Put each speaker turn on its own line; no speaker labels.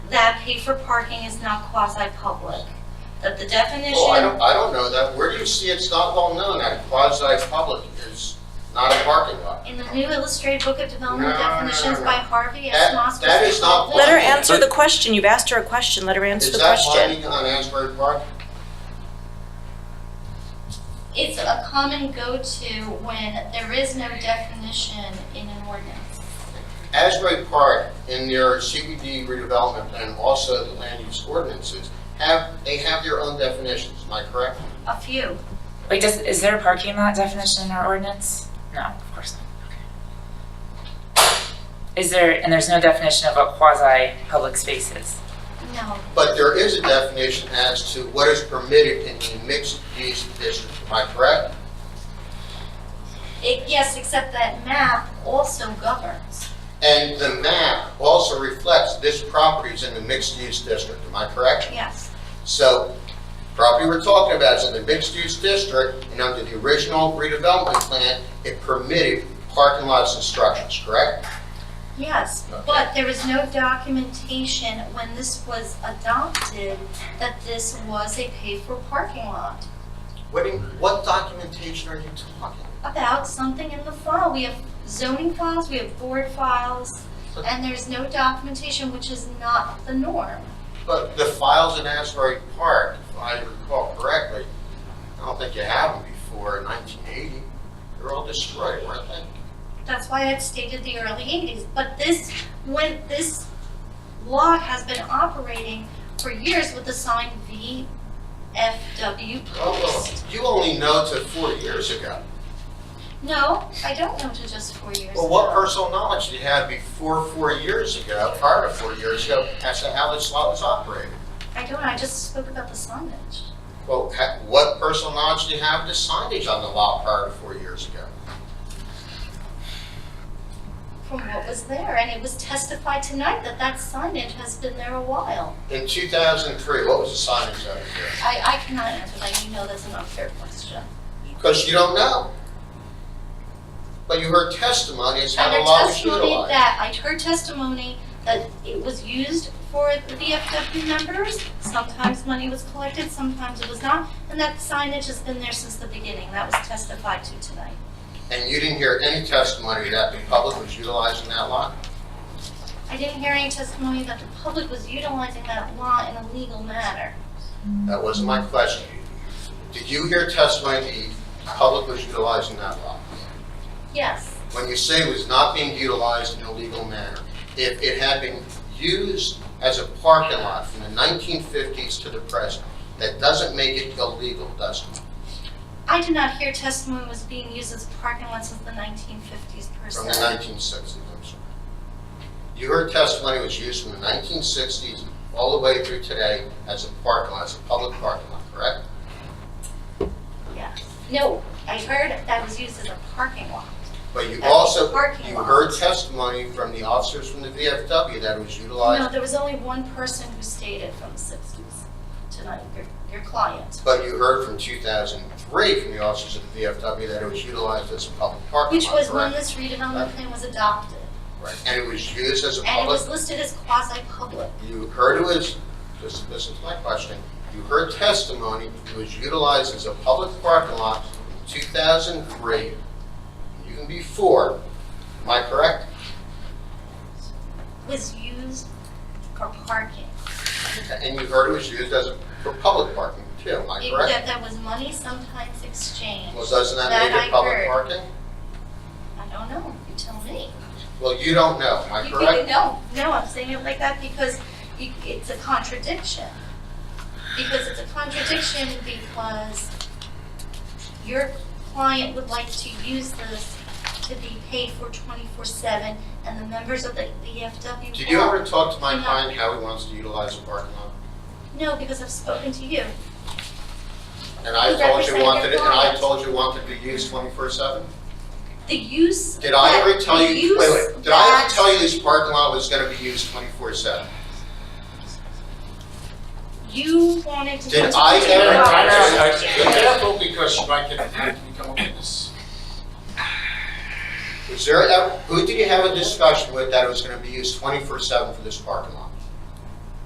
paid for parking is not quasi-public. That the definition.
Oh, I don't, I don't know that. Where do you see it's not well known that quasi-public is not a parking lot?
In the new illustrated book of development
No, no, no,
definitions
no.
by Harvey S.
That-
Moss.
that is not
Let her answer the question. You've asked her a question. Let her answer
Is
the
that
question.
parking on Asbury Park?
It's a common go-to when there is no definition in an ordinance.
Asbury Park in their CBD redevelopment and also the land use ordinances have, they have their own definitions, am I correct?
A few.
Wait, does, is there a parking lot definition in our ordinance? No, of course not. Okay. Is there, and there's no definition of what quasi-public space is?
No,
But there is a definition as to what is permitted in a mixed-use district, am I correct?
It- yes, except that map also governs.
And the map also reflects this property's in the mixed-use district, am I correct?
Yes,
So, property we're talking about is in the mixed-use district, and under the original redevelopment plan, it permitted parking lots and structures, correct?
yes, but there is no documentation when this was adopted that this was a paid-for parking lot.
What, do you- what documentation are you talking?
About something in the file, we have zoning files, we have board files, and there's no documentation, which is not the norm.
But the files in Asbury Park, if I recall correctly, I don't think you had them before nineteen eighty. They were all destroyed, weren't they?
That's why I would stated the early eighties, but this, when, this lot has been operating for years with the sign VFW
Oh, well,
post.
you only know to four years ago.
No, I don't know to just four years.
Well, what
ago.
personal knowledge do you have before four years ago, prior to four years ago, as to how this lot was operated?
I don't, I just spoke about the signage.
Well, ha- what personal knowledge do you have to signage on the lot prior to four years ago?
from what was there, and it was testified tonight that that signage has been there a while.
In 2003, what was the signage over there?
I, I cannot answer that, you know that's an unfair question.
Because you don't know. But you heard testimony as how the
Under
lot was
testimony
utilized.
that, I heard testimony that it was used for the VFW members, sometimes money was collected, sometimes it was not, and that signage has been there since the beginning, that was testified to tonight.
And you didn't hear any testimony that the public was utilizing that lot?
I didn't hear any testimony that the public was utilizing that law in a legal manner.
That wasn't my question. Did you hear testimony the public was utilizing that lot?
Yes,
When you say it was not being utilized in a legal manner, if it had been used as a parking lot from the 1950s to the present, that doesn't make it illegal, does it?
I did not hear testimony was being used as a parking lot since the nineteen fifties per se.
From the 1960s, I'm sorry. You heard testimony was used from the 1960s all the way through today as a parking lot, as a public parking lot, correct?
Yeah, no, I heard that was used as a parking lot.
But you
As a
also,
parking
you
lot.
heard testimony from the officers from the VFW that it was
No,
utilized,
there was only one person who stated from the sixties tonight, your, your client.
but you heard from 2003 from the officers of the VFW that it was utilized as a public parking lot,
Which was
correct?
when this redevelopment plan was adopted,
Right, and it was used as a
and it was
public,
listed as quasi-public.
you heard it was, just listen to my question, you heard testimony, it was utilized as a public parking lot in 2003, even before, am I correct?
Was used for parking.
And you heard it was used as a, for public parking too, am I
It-
correct?
That, that was money sometimes exchanged.
Well, doesn't that
That
make
I
it public
heard.
parking?
I don't know, you tell me.
Well, you don't know, am I
You- you-
correct?
No, no, I'm saying it like that because you- it's a contradiction. Because it's a contradiction because your client would like to use this to be paid for twenty-four seven and the members of the VFW.
Did you ever talk to my
No.
client how he wants to utilize the parking lot?
No, because I've spoken to you.
And I
You
told you
represent
wanted it,
your
and I
client.
told you wanted to use 24/7?
The use.
Did I
that-
ever tell
the
you,
use
wait, wait, did I
that-
ever tell you this parking lot was gonna be used twenty-four seven?
You wanted to.
Did I
to-
ever-
No.
I know.
Careful because you might get attacked if you come up with this.
Was there, ever- who did you have a discussion with that it was gonna be used twenty-four seven for this parking lot?